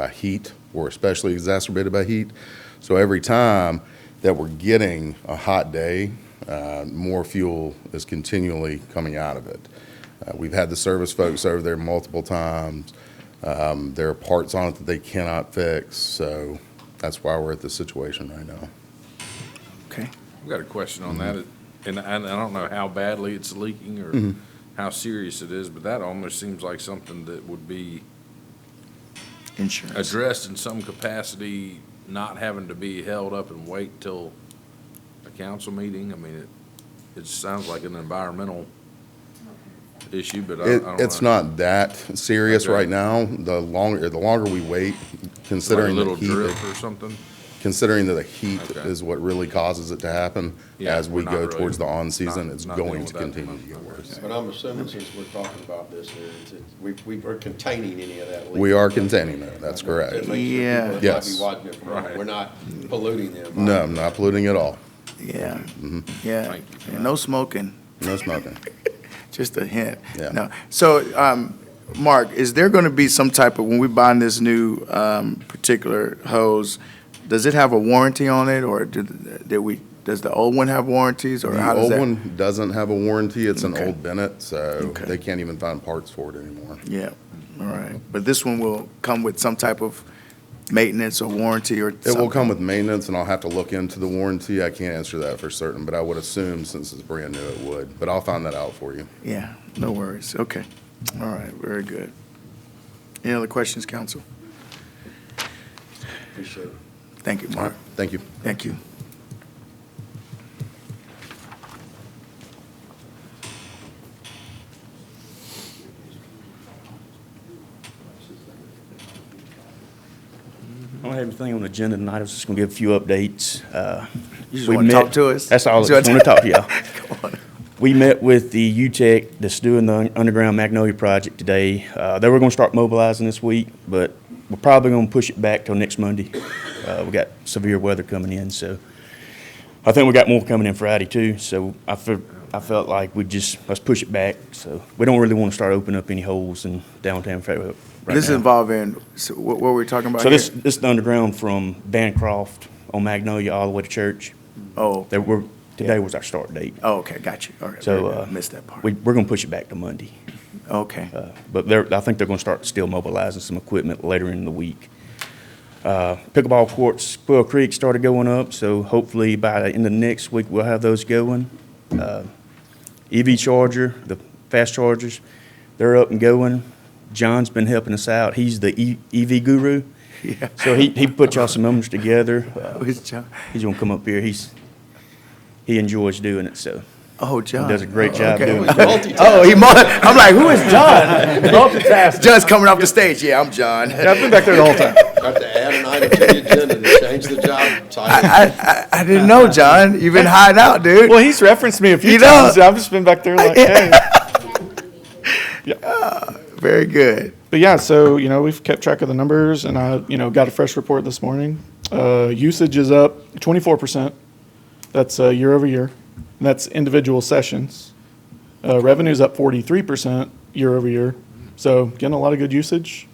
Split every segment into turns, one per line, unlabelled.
by heat or especially exacerbated by heat. So every time that we're getting a hot day, uh, more fuel is continually coming out of it. Uh, We've had the service folks over there multiple times. Um, There are parts on it that they cannot fix, so that's why we're at this situation right now.
Okay.
I've got a question on that, and I, and I don't know how badly it's leaking or how serious it is, but that almost seems like something that would be
Insurance.
addressed in some capacity, not having to be held up and wait till a council meeting. I mean, it, it sounds like an environmental issue, but I, I
It,
don't know.
it's not that serious
Okay.
right now. The longer, the longer we wait,
Like a
considering the
little
heat,
drip or something?
considering that the heat
Okay.
is what really causes it to happen,
Yeah,
as we
we're not
go
really-
towards the on-season,
not-
it's
not dealing
going
with
to
that at the
continue to get
moment.
worse.
But I'm assuming since we're talking about this, here, it's, it's, we, we are containing any of that. leak.
We are containing that, that's
At
correct.
least the people
Yeah.
that might be
Yes.
watching it from home,
Right.
We're not polluting them.
No, I'm not polluting at all.
Yeah,
Mm-hmm.
yeah.
Thank you.
And No smoking,
No smoking.
just a hint.
Yeah.
No. So, um, Mark, is there going to be some type of, when we buy this new, um, particular hose, does it have a warranty on it or did, did we, does the old one have warranties or
The
how does
old
that?
one doesn't have a warranty, it's an
Okay.
old Bennett, so
Okay.
they can't even find parts for it anymore.
Yeah, all right. But this one will come with some type of maintenance or warranty or
It will
something?
come with maintenance, and I'll have to look into the warranty, I can't answer that for certain, but I would assume since it's brand new, it would, but I'll find that out for you.
Yeah, no worries. Okay. All right, very good. Any other questions, council?
Appreciate it.
Thank you,
All right,
Mark.
thank you.
Thank you.
I don't have anything on the agenda tonight. I was just gonna give a few updates. Uh,
You just
we
wanna
met-
talk to us?
That's all. I
You
just
just
want
wanna-
to talk to y'all.
Come on.
We met with the UTEC that's doing the un- underground Magnolia project today. Uh, They were going to start mobilizing this week, but we're probably going to push it back till next Monday. Uh, We got severe weather coming in, so I think we got more coming in Friday too. So I felt, I felt like we just, let's push it back. So we don't really want to start opening up any holes in downtown Fayetteville right
This is
now.
involving, so what, what were we talking about
So
here?
this, this is the underground from Bancroft on Magnolia all the way to church.
Oh,
There were, today was our start date.
oh, okay, got you. All right,
So,
very
uh.
good. missed that part.
We, we're gonna push it back to Monday.
Okay,
Uh, But they're, I think they're gonna start still mobilizing some equipment later in the week. Uh, Pickleball courts, Quail Creek started going up, so hopefully by the end of next week, we'll have those going. Uh, EV charger, the fast chargers, they're up and going. John's been helping us out. He's the E- EV guru.
yeah.
So he, he put y'all some numbers together. Uh,
Who's Oh, John?
He's gonna come up here. He's, he enjoys doing it, so.
Oh, John.
does a great
Oh,
job
okay.
doing
Oh, he, mul- I'm like, who is John? John's coming off the stage. Yeah, I'm John. I,
I've been back there the whole time.
Have to add an item to the agenda to change the job title.
I, I didn't know, John. You've been hiding out, dude.
Well, he's referenced me a few
You know-
times. and I've just been back there like, hey.
Very good.
But yeah, so you know we've kept track of the numbers, and I you know got a fresh report this morning. Uh, usage is up 24 percent. That's uh, year over year. And that's individual sessions. Uh, revenue's up 43 percent year over year. So getting a lot of good usage.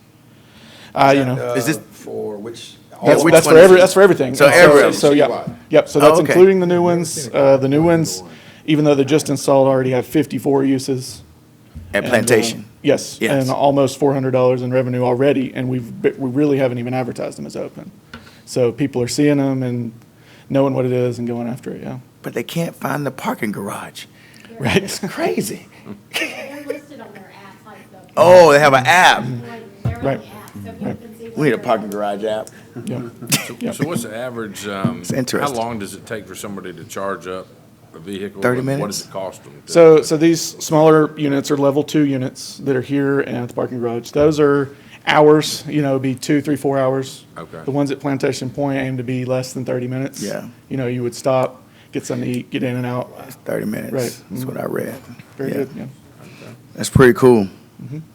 Uh, you know
Is this-
Uh, For which,
that's,
which
that's
one
for
is
every,
it?
that's for everything.
So every- Oh,
so, so yeah,
Citywide.
yep. So that's
Okay.
including the new ones. Uh, the new ones, even though they're just installed, already have 54 uses.
At
And, uh,
Plantation.
Yes,
Yes.
and almost four hundred dollars in revenue already, and we've, but we really haven't even advertised them as open. So people are seeing them and knowing what it is and going after it, yeah.
but they can't find the parking garage.
Right.
It's crazy.
They're listed on their app, like the.
Oh, they have an app.
Like, They're on
Right.
the app, so people can see. what
We need a
they're-
parking garage app.
Yeah.
So what's the average, um, how
interesting.
long does it take for somebody to charge up a vehicle?
30
and What
minutes?
does it cost them? to-
So, so these smaller units are level two units that are here and at the parking garage. Those are hours, you know, be two, three, four hours.
Okay.
The ones at Plantation Point aim to be less than thirty minutes.
Yeah.
You know, you would stop, get something to eat, get in and out.
It's 30 minutes.
Right.
That's what I read.
Very
Yeah.
good, yeah.
That's pretty cool.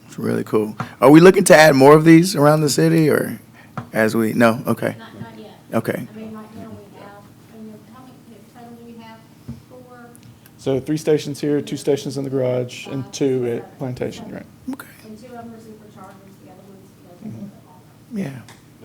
It's really cool. Are we looking to add more of these around the city or as we, no, okay,
Not, not yet.
okay.
I mean, right now we have, and then how many, total do you have? Four,
So three stations here, two stations in the garage,
Uh,
and two at Plantation, right?
Okay,
Mm-hmm.
and two of them are superchargers, the other ones, you know, they're all-
yeah,